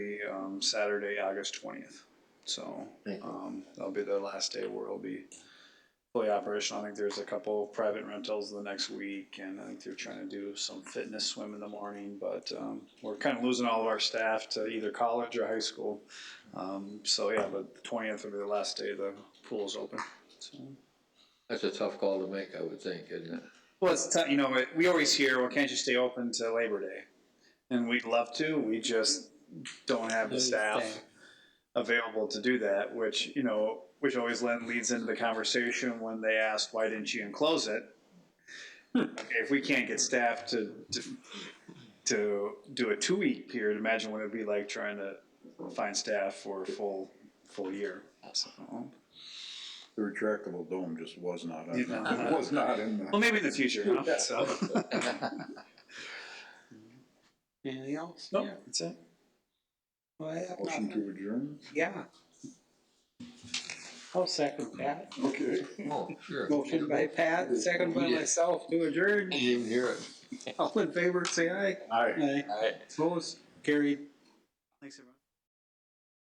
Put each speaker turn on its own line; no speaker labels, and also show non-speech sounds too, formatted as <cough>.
um, Saturday, August twentieth. So, um, that'll be the last day where it'll be fully operational. I think there's a couple private rentals the next week and I think they're trying to do some fitness swim in the morning, but, um, we're kind of losing all of our staff to either college or high school. Um, so yeah, but the twentieth will be the last day the pool is open, so.
That's a tough call to make, I would think, isn't it?
Well, it's t- you know it- we always hear, "Well, can't you stay open to Labor Day?" And we'd love to. We just don't have the staff available to do that. Which you know, which always then leads into the conversation when they ask, "Why didn't you enclose it?" okay, if we can't get staff to to, to do a two week period, imagine what it'd be like trying to find staff for a full full year. So,
The retractable dome just was not, on
Yeah.
that. was not in
<laughs> well,
the.
maybe in the future. Huh? So,
Anything else?
no,
Yeah.
that's it.
Well, I have
Motion
nothing.
to adjourn?
Yeah. I'll second that.
Okay.
Oh, sure.
Motion by Pat, second by
Yeah.
myself to adjourn.
Didn't even hear it.
All in favor, say aye.
Aye.
Aye. Opposed, carried.
Thanks, everyone.